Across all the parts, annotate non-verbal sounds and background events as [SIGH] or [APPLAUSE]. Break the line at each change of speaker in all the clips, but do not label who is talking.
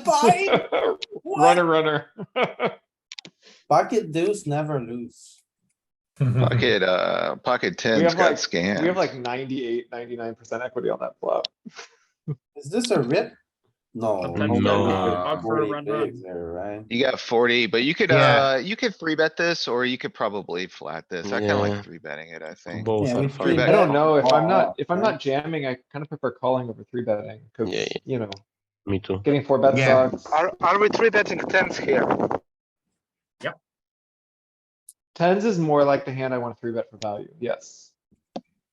[LAUGHS]
Buy? What?
Runner, runner.
Pocket deuce never lose.
Pocket, uh, pocket tens
have like-
got
Mm-hmm. We have like
scammed.
98, 99% equity on that flop.
Is this a rip? No.
Sometimes
no,
no.
no,
Odd for a
40
run, run.
bigs there, right?
You got forty, but you could,
Yeah.
uh, you could three bet this or you could probably flat this. I kinda
Yeah.
like three betting it, I think.
Both
Yeah,
are
we
fine.
three
I don't know if I'm
Oh,
not, if I'm
right.
not jamming, I kind of prefer calling over three betting because,
Yeah, yeah.
you know,
Me too.
getting four bet
Yeah.
sucks.
Are, are we three betting tens here?
Tens is more like the hand I want to three bet for value. Yes.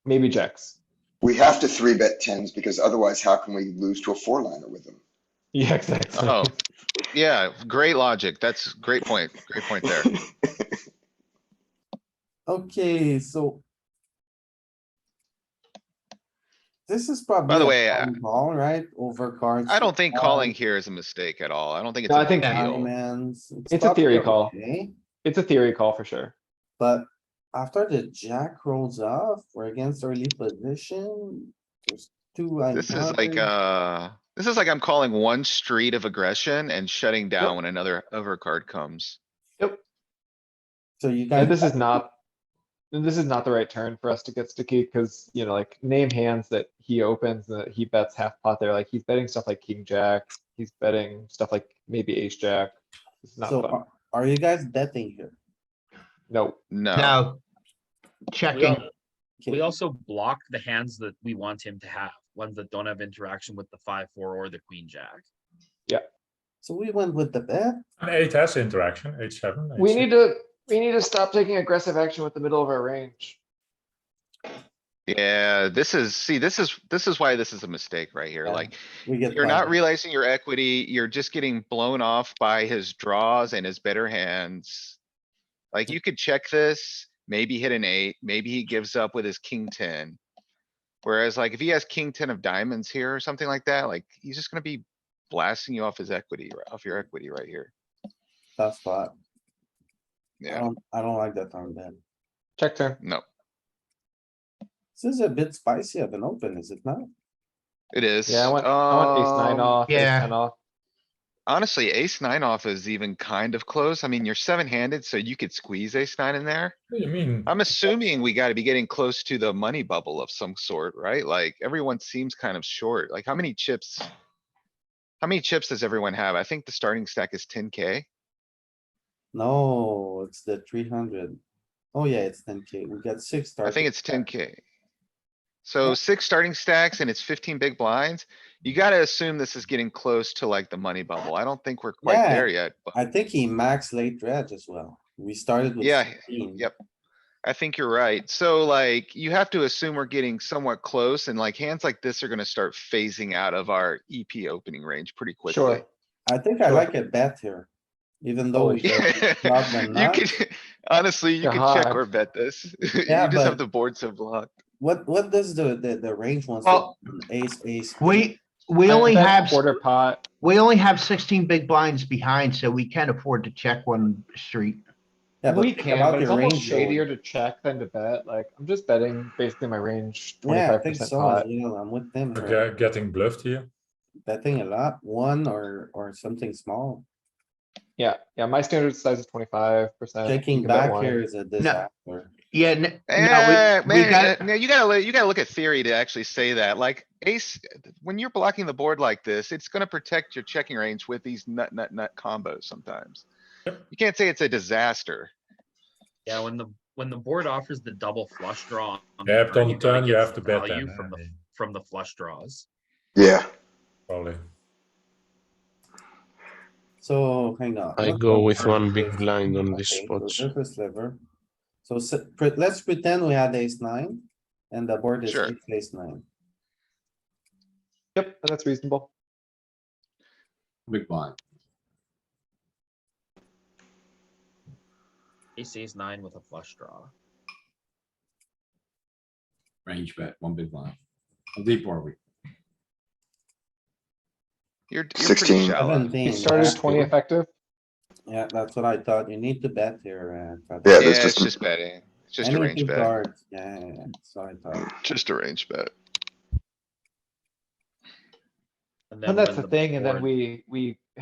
Maybe jacks.
We have to three bet tens because otherwise how can we lose to a four liner with them?
[LAUGHS] Yeah, exactly.
Oh, yeah, great logic. That's great point. Great point there.
Okay, so. This is probably.
the
a
way, I-
fun Call, right? Over cards.
I
[LAUGHS]
don't think
Um,
calling here is a mistake at all. I don't think it's
No,
a
I think-
big
with
Yeah.
money
deal.
mans.
It's a theory
probably
call.
okay,
It's a theory call for sure.
But after the jack rolls off, we're against early position. There's two.
This is like,
uncovered.
uh, this is like I'm calling one street of aggression and shutting down when another overcard comes.
So you
Yeah,
guys.
This is not, this is not the right turn for us to get sticky because, you know, like name hands that he opens, that he bets half pot there, like he's betting stuff like king jack. He's betting stuff like maybe ace jack. It's not
So
fun.
are- are you guys betting here?
No,
No,
Now,
We
checking,
al-
Okay.
we also block the hands that we want him to have, ones that don't have interaction with the five, four or the queen jack.
So we went with the bet.
And eight has interaction, eight seven.
uh,
we need to, we need to stop taking aggressive action with the middle of our range.
yeah, this is, see, this is, this is why this is a mistake right here.
Yeah.
Like,
We get.
You're not
five.
realizing your equity, you're just getting blown off by his draws and his better hands. Like you could check this, maybe hit an eight, maybe he gives up with his king ten. Whereas like if he has king ten of diamonds here or something like that, like he's just gonna be blasting you off his equity, r- off your equity right here.
Tough spot. I
Yeah.
don't, I don't like that turn then.
Check turn.
No,
This is a bit spicy of an open, is it not?
it is.
Yeah, I want, I want ace nine
um,
off, ace
yeah.
ten off.
Honestly, ace nine off is even kind of close. I mean, you're seven handed, so you could squeeze ace nine in there.
What do you mean?
I'm assuming we gotta be getting close to the money bubble of some sort, right? Like, everyone seems kind of short. Like, how many chips? How many chips does everyone have? I think the starting stack is ten K.
No, it's the three hundred. Oh yeah, it's ten K. We got six.
I think
targets.
it's ten K. So six starting stacks and it's fifteen big blinds. You gotta assume this is getting close to like the money bubble. I don't think we're quite
Yeah.
there yet, but
I think he maxed late dredge as well. We started with.
Yeah,
16.
yep. I think you're right. So like, you have to assume we're getting somewhat close and like hands like this are gonna start phasing out of our EP opening range pretty quickly. [LAUGHS]
Sure.
I think I
Sure.
like a bet here, even
Oh,
though we. got blocked and
You
not.
could, honestly, you could check
God.
or bet this. [LAUGHS] You just
Yeah, but-
have the board so blocked.
What, what does the, the, the range wants? to
Well-
open? [CLEARS THROAT] Ace, ace. queen.
we, we
I
only
bet
have,
Quarter pot.
we only have sixteen big blinds behind, so we can afford to check one street.
Yeah, but
We
think
can,
about
but it's
your
almost
range, Joey.
shadier to check than to bet. Like, I'm just betting basically my range
Yeah, I
twenty-five
think
percent
so.
pot.
as well. I'm with them.
We're
here.
ge- Getting bluffed here.
Betting a lot, one or, or something small.
Yeah, yeah, my standard size is twenty-five percent.
Checking back here is a disaster.
Yeah, n-
Eh,
no, we, we
man,
got,
eh, no, you gotta, li- you gotta look at theory to actually say that, like ace, when you're blocking the board like this, it's gonna protect your checking range with these nut, nut, nut combos sometimes. You can't say it's a disaster.
Yeah, when the, when the board offers the double flush draw. on the
Yeah, but on the
you gotta
turn, you
get
have to
some
bet
value
then,
From
I
the,
mean.
from the flush draws.
Yeah,
Probably.
So hang on.
I
What
go
was
with
our
one big
first-
blind on this
okay,
spot.
so this is sliver. So s- pre- let's pretend we had ace nine and the board is
Sure.
ace- ace nine.
Yep, and that's reasonable.
Big blind. Ace, ace nine with a flush draw.
range bet, one big blind. How deep are we?
You're, you're pretty
16.
shallow.
He
17,
started
yeah.
twenty effective.
Yeah, that's what I thought. You need to bet here. uh,
Yeah,
Yeah,
Patrick.
there's
it's
just-
just betting. It's just a
Any
range
two
bet.
cards, Yeah, yeah, yeah, so I thought.
Just a range bet.
And
when
that's the
the
thing, and then
board-
we, we